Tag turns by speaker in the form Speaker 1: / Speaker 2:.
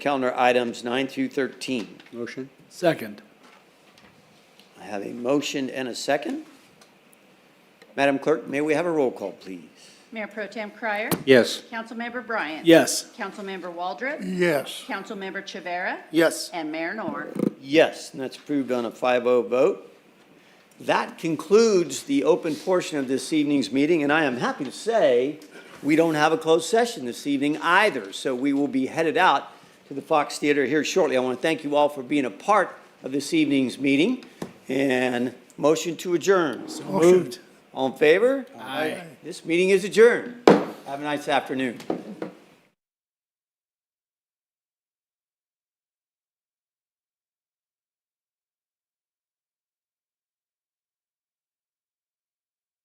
Speaker 1: calendar items nine through 13.
Speaker 2: Motion?
Speaker 3: Second.
Speaker 1: I have a motion and a second. Madam Clerk, may we have a roll call, please?
Speaker 4: Mayor Pro Tem Cryer.
Speaker 2: Yes.
Speaker 4: Councilmember Bryant.
Speaker 3: Yes.
Speaker 4: Councilmember Waldrop.
Speaker 5: Yes.
Speaker 4: Councilmember Chevera.
Speaker 3: Yes.
Speaker 4: And Mayor Nor.
Speaker 1: Yes, and that's approved on a 5-0 vote. That concludes the open portion of this evening's meeting, and I am happy to say we don't have a closed session this evening either, so we will be headed out to the Fox Theater here shortly. I want to thank you all for being a part of this evening's meeting, and motion to adjourn.
Speaker 3: Moved.
Speaker 1: All in favor?
Speaker 3: Aye.
Speaker 1: This meeting is adjourned. Have a nice afternoon.